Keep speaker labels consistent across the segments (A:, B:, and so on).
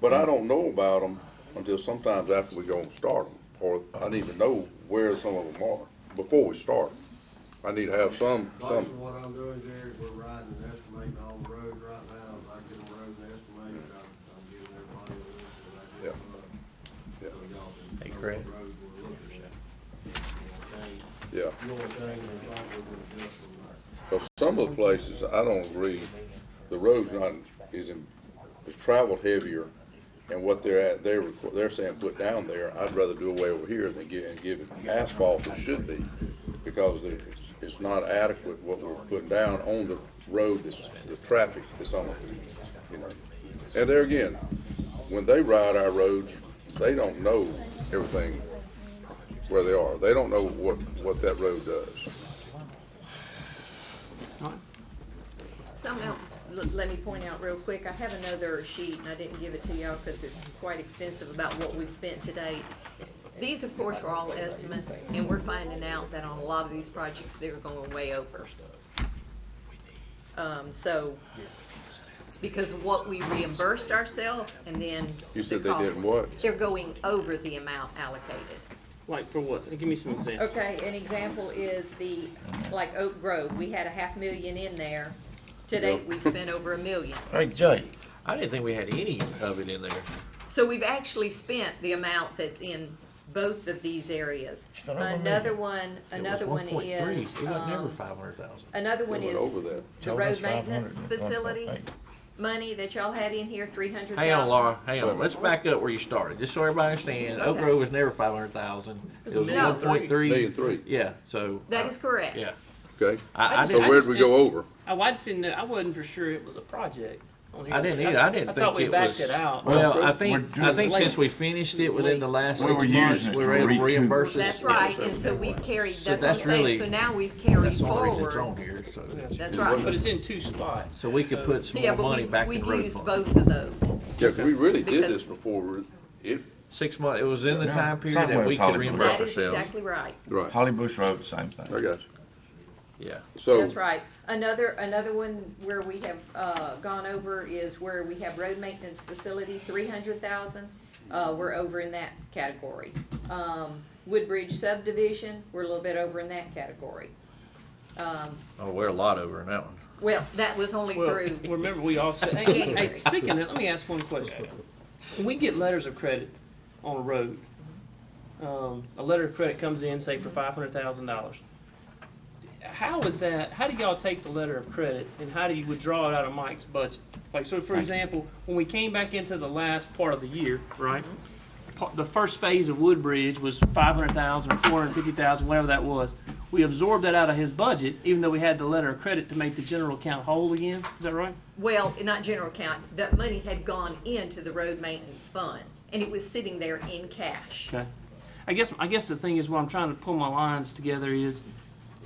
A: But I don't know about them until sometimes after we go and start them, or I need to know where some of them are before we start. 'em. I need to have some,
B: Basically,
A: some,
B: what I'm doing, Jerry, is we're riding and estimating on the road right now, if I get a road and estimate, I'm, I'm giving everybody a list of that.
A: Yeah. Yeah.
B: So y'all can
C: Hey,
B: know
C: Craig.
B: what road we're looking at.
A: yeah.
B: The only thing we probably would do is from there.
A: Because some of the places, I don't agree, the road's not, is, in- is traveled heavier, and what they're at, they're, requ- they're saying put down there, I'd rather do away over here than give, and give it asphalt it should be, because the- it's, it's not adequate what we're putting down on the road, this, the traffic that's on it, you know. And there again, when they ride our roads, they don't know everything where they are, they don't know what, what that road does.
D: Something else, l- let me point out real quick, I have another sheet, and I didn't give it to y'all because it's quite extensive about what we've spent to date. These, of course, are all estimates, and we're finding out that on a lot of these projects, they're going way over. Um, so, because of what we reimbursed ourselves, and then.
A: You said
D: the
A: they did
D: cost.
A: what?
D: They're going over the amount allocated.
C: Like for what? Give me some examples.
D: Okay, an example is the, like Oak Grove, we had a half million in there. To date,
A: Yep.
D: we've spent over a million.
E: Hey, Jay,
F: I didn't think we had any of it in there.
D: So we've actually spent the amount that's in both of these areas.
E: Spent over a million.
D: Another one,
E: it was
D: another one
E: 1.3.
D: is,
F: It was never
D: um,
F: five hundred thousand.
D: another one
A: They went
D: is
A: over that.
D: the
E: No,
D: road
E: that's
D: maintenance
E: 500,
D: facility
E: 1.8.
D: money that y'all had in here, three hundred thousand.
F: Hang on, Laura, hang on. Let's back up where you started, just so everybody understands. Oak
D: Okay.
F: Grove was never five hundred thousand. It
C: a
F: was
C: million
F: one point three.
A: Million three.
F: Yeah, so. uh,
D: That is correct.
F: Yeah.
A: Okay,
F: I, I
A: so
C: So
F: didn't,
C: where-
A: where'd
C: just
A: we
C: didn't-
A: go over?
C: Oh, I just didn't know, I wasn't for sure it was a project. on here.
F: I didn't either. I didn't
C: I thought
F: think
C: we
F: it
C: backed
F: was-
C: it out.
F: well, I
E: We're
F: think,
E: doing
F: I think
C: it
F: since
C: late.
F: we finished
C: It
F: it
C: was
F: within
C: late.
F: the last
E: We
F: six
E: were
F: months,
E: using it
F: we
E: to
F: were able to
E: recoup.
F: reimburse us.
D: That's
F: for
D: right,
F: it.
D: and so we've carried, that's what I'm
F: that's
D: saying,
F: really-
D: so now we've carried
F: That's the only reason it's on
D: forward.
F: here, so.
D: That's
C: But
D: right.
C: it's in two spots.
F: So we could put some
D: Yeah,
F: more
D: but
F: money back
D: we,
F: in
D: we've
F: road
D: used
F: fund.
D: both of those.
A: Yeah, 'cause we really did
D: Because-
A: this before, we- it,
F: Six months, it was in the
E: No,
F: time period
E: somewhere
F: that we
E: it's
F: could
E: Hollywood.
F: reimburse
D: That is
F: ourselves.
D: exactly right.
A: right, I
E: Holly Bush Road, same
A: got
E: thing.
A: you.
F: Yeah.
A: So.
D: That's right. Another, another one where we have, uh, gone over is where we have road maintenance facility, three hundred thousand. Uh, we're over in that category. Um, Woodbridge subdivision, we're a little bit over in that category. Um,
F: Oh, we're a lot over in that one.
D: well, that was only
C: Well,
D: through,
C: remember we also, hey,
D: January.
C: hey, speaking of that, let me ask one question. When we get letters of credit on a road, um, a letter of credit comes in, say for five hundred thousand dollars. How is that, how do y'all take the letter of credit and how do you withdraw it out of Mike's budget? Like, so for example, when we came back into the last part of the year, right? pa- the first phase of Woodbridge was 500,000 or 450,000, whatever that was. We absorbed that out of his budget, even though we had the letter of credit to make the general account whole again. Is that right?
D: well, not general account, that money had gone into the road maintenance fund and it was sitting there in cash.
C: Okay. I guess I guess the thing is what I'm trying to pull my lines together is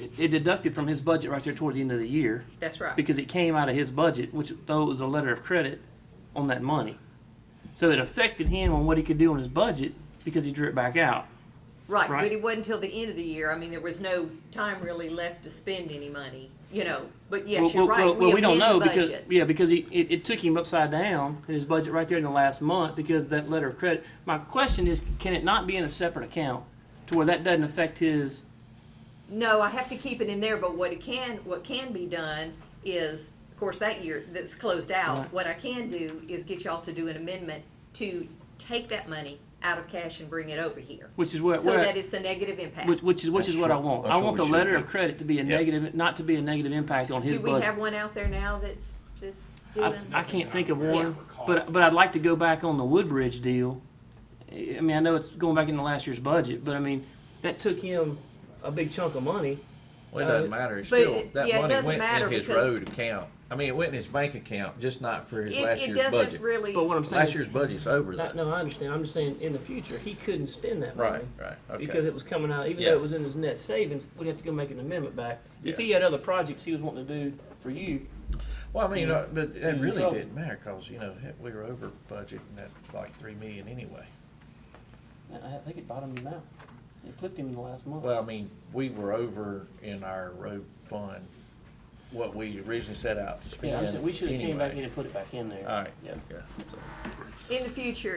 C: it, it deducted from his budget right there toward the end of the year
D: That's right.
C: because it came out of his budget, which though it was a letter of credit on that money. So it affected him on what he could do on his budget because he drew it back out.
D: Right,
C: Right.
D: but it wasn't until the end of the year. I mean, there was no time really left to spend any money, you know. But yes,
C: well,
D: you're
C: well,
D: right.
C: well, well, we don't know
D: amend the
C: because
D: budget.
C: yeah, because he, it, it took him upside down in his budget right there in the last month because that letter of credit. My question is, can it not be in a separate account to where that doesn't affect his?
D: No, I have to keep it in there. But what it can, what can be done is, of course, that year that's closed out.
C: Right.
D: What I can do is get y'all to do an amendment to take that money out of cash and bring it over here,
C: Which is what
D: so
C: where
D: that it's a negative impact.
C: which, which is which is what I
E: That's
C: want.
E: what-
C: I want
E: that's what
C: the
E: we
C: letter
E: should
C: of
E: do.
C: credit to be a
E: Yeah.
C: negative, not to be a negative impact on his
D: do we
C: budget.
D: have one out there now that's that's
C: I,
D: doing?
C: I can't think of
D: Yeah.
C: one, but but I'd like to go back on the Woodbridge deal. I I mean, I know it's going back into last year's budget, but I mean, that took him a big chunk of money.
F: Well, it doesn't matter. It's
D: Uh, but
F: still
D: it-
F: that
D: yeah, it
F: money
D: doesn't
F: went
D: matter
F: in his
D: because-
F: road account. I mean, it went in his bank account, just not for his last
D: it, it
F: year's
D: doesn't
F: budget.
D: really.
C: But what I'm saying
F: last
C: is,
F: year's budget's over.
C: No,
F: That.
C: no, I understand. I'm just saying, in the future, he couldn't spend that money.
F: Right, right. Okay.
C: Because it was coming out, even
F: Yeah.
C: though it was in his net savings, we'd have to go make an amendment back. If
F: Yeah.
C: he had other projects he was wanting to do for you,
F: well, I mean, uh, but
C: was
F: it
C: in
F: really
C: trouble.
F: didn't matter because you know heck, we were over budget and that like three million anyway.
C: I I think it bottomed him out. It flipped him in the last month.
F: Well, I mean, we were over in our road fund what we originally set out to spend.
C: Yeah, I'm saying, we should have came back
F: anyway.
C: in and put it back in there.
F: All right.
C: Yeah.
F: Yeah.
D: In the future,